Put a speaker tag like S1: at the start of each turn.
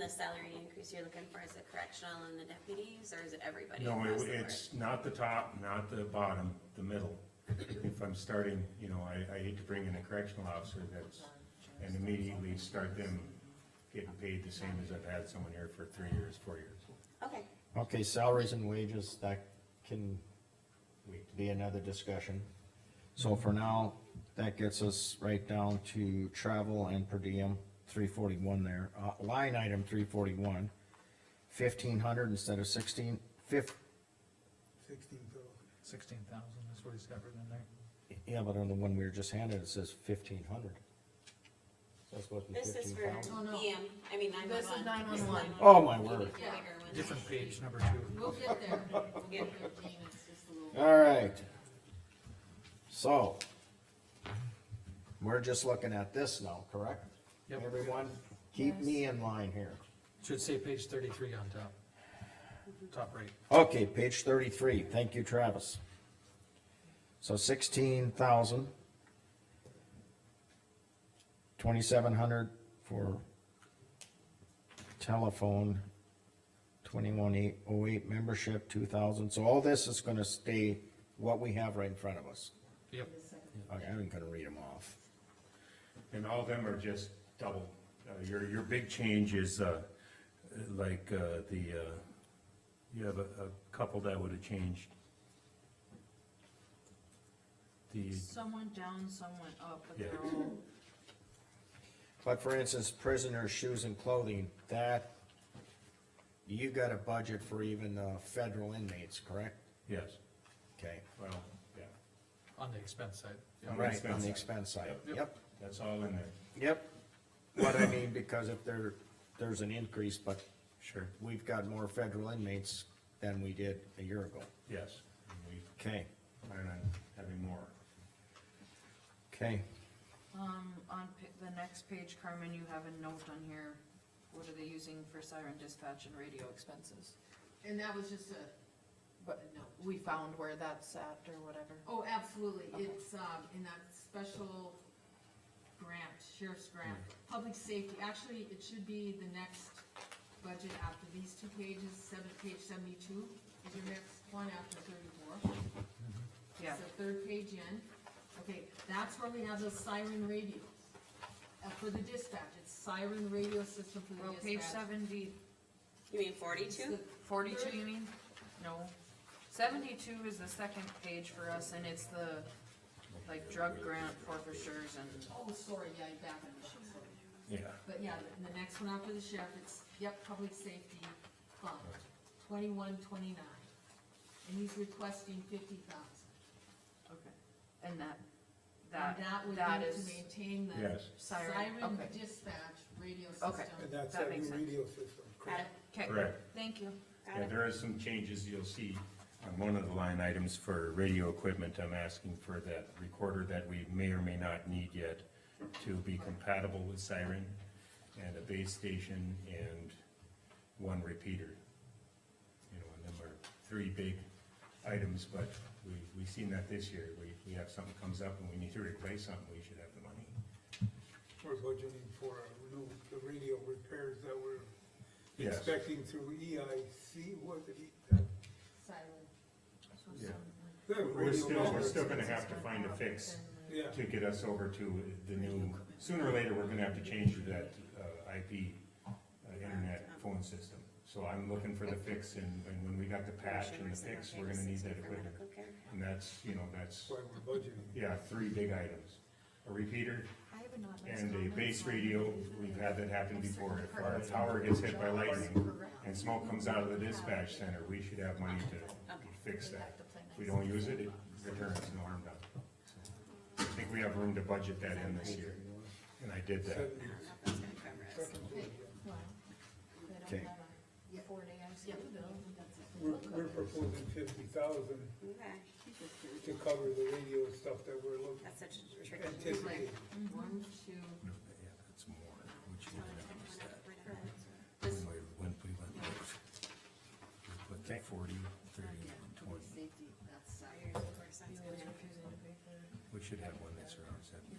S1: the salary increase you're looking for, is it correctional and the deputies, or is it everybody
S2: No,
S1: across the
S2: it-
S1: board?
S2: it's not the top, not the bottom, the middle. If I'm starting, you know, I, I hate to bring in a correctional officer that's, and immediately start them getting paid the same as I've had someone here for three years, four years.
S1: Okay,
S3: Okay, salaries and wages, that can
S2: Wait,
S3: be another discussion. So for now, that gets us right down to travel and per diem, three forty-one there, uh, line item three forty-one. Fifteen hundred instead of sixteen, fif,
S4: Sixteen thousand.
S5: Sixteen thousand, that's what he's got written in there.
S3: yeah, but on the one we were just handed, it says fifteen hundred. That's what,
S1: this is
S3: fifteen
S1: for
S3: thousand?
S6: Oh, no.
S1: EM, I mean nine
S6: This is
S1: one one.
S6: 911.
S3: Oh, my word.
S2: Oh.
S5: Different page, number two.
S6: We'll get there. We'll
S1: Yeah.
S6: get there, Jean, it's just a little-
S3: Alright. So. We're just looking at this now, correct?
S5: Yep.
S3: Everyone, keep me in line here.
S5: Should say page thirty-three on top. Top right.
S3: Okay, page thirty-three, thank you, Travis. So sixteen thousand. Twenty-seven hundred for telephone, twenty-one eight oh eight membership, two thousand, so all this is gonna stay what we have right in front of us.
S5: Yep.
S3: Okay, I'm gonna read them off.
S2: And all of them are just double. Uh, your, your big change is, uh, like, uh, the, uh, you have a, a couple that would have changed. The,
S7: Some went down, some went up, but they're
S2: Yeah.
S7: all,
S3: But for instance, prisoners' shoes and clothing, that, you got a budget for even, uh, federal inmates, correct?
S2: yes,
S3: Okay,
S2: well, yeah,
S5: On the expense side. Yeah.
S2: the
S3: right, on
S2: expense
S3: the
S2: side.
S3: expense side,
S5: Yep.
S3: yep,
S2: that's all in there,
S3: yep. What I mean, because if there, there's an increase, but
S2: sure,
S3: we've got more federal inmates than we did a year ago.
S2: yes. And We
S3: Okay,
S2: plan on having more.
S3: okay,
S7: um, on pa- the next page, Carmen, you have a note on here, what are they using for siren dispatch and radio expenses?
S6: And that was just a,
S7: But
S6: a note.
S7: we found where that's at or whatever.
S6: Oh, absolutely,
S7: Okay.
S6: it's, um, in that special grant, sheriff's grant,
S7: Mm.
S6: public safety, actually, it should be the next budget after these two pages, seven, page seventy-two, is your next one after thirty-four.
S7: Mm-hmm. Yeah,
S6: So third page in, okay, that's where we have those siren radios. Uh, for the dispatch, it's siren radio system for
S7: well,
S6: the dispatch.
S7: page seventy,
S1: You mean
S6: It's the
S1: forty-two?
S7: forty-two, you mean? No, seventy-two is the second page for us, and it's the, like, drug grant forfeitures and,
S6: Oh, sorry, yeah, you're back on the sheet, sorry.
S2: Yeah.
S6: But yeah, the- the next one after the sheriff, it's, yep, public safety fund, twenty-one, twenty-nine. And he's requesting fifty thousand.
S7: okay, and that,
S6: And
S7: that,
S6: that would
S7: that
S6: be to
S7: is
S6: maintain the
S2: Yes,
S7: siren,
S6: siren
S7: okay,
S6: dispatch radio
S7: Okay.
S6: system.
S4: And that's
S7: That
S4: that
S7: makes
S4: new
S7: sense.
S4: radio system.
S1: Got it,
S7: okay,
S2: correct.
S7: thank you.
S1: got
S2: Yeah,
S1: it.
S2: there are some changes you'll see on one of the line items for radio equipment. I'm asking for that recorder that we may or may not need yet to be compatible with siren and a base station and one repeater. You know, and them are three big items, but we, we seen that this year. We, we have something comes up and we need to replace something, we should have the money.
S4: We're budgeting for a new, the radio repairs that we're
S2: Yes.
S4: expecting through E EIC, was it? E-
S6: Siren.
S2: Yeah.
S4: that
S2: We're
S4: radio
S2: still, we're
S4: network.
S2: still gonna have to find a fix.
S4: Yeah,
S2: to get us over to the new, sooner or later, we're gonna have to change to that uh, IP, uh, internet phone system. So I'm looking for the fix, and, and when we got the patch and the fix, we're gonna need that equipment. And that's, you know, that's,
S4: that's why we're budgeting.
S2: yeah, three big items. A repeater
S7: I have not
S2: and a base radio, we've had that happen before. If our tower gets hit by lightning and smoke comes out of the dispatch center, we should have money to fix that. If we don't use it, it returns no harm done. So, I think we have room to budget that in this year, and I did that.
S4: Seventy-
S1: That's gonna cover us.
S4: second page, yeah.
S3: okay.
S6: Yeah.
S4: We're, we're proposing fifty thousand
S1: Okay,
S4: to cover the radio stuff that we're looking,
S1: that's such a tricky.
S4: anticipating.
S6: One, two,
S2: No, Yeah, that's more, which you didn't use that.
S1: This-
S2: When we went- we went with- we put the forty, thirty, and twenty,
S6: safety, that's siren.
S1: Here's the first one's gonna-
S2: we should have one that surrounds that.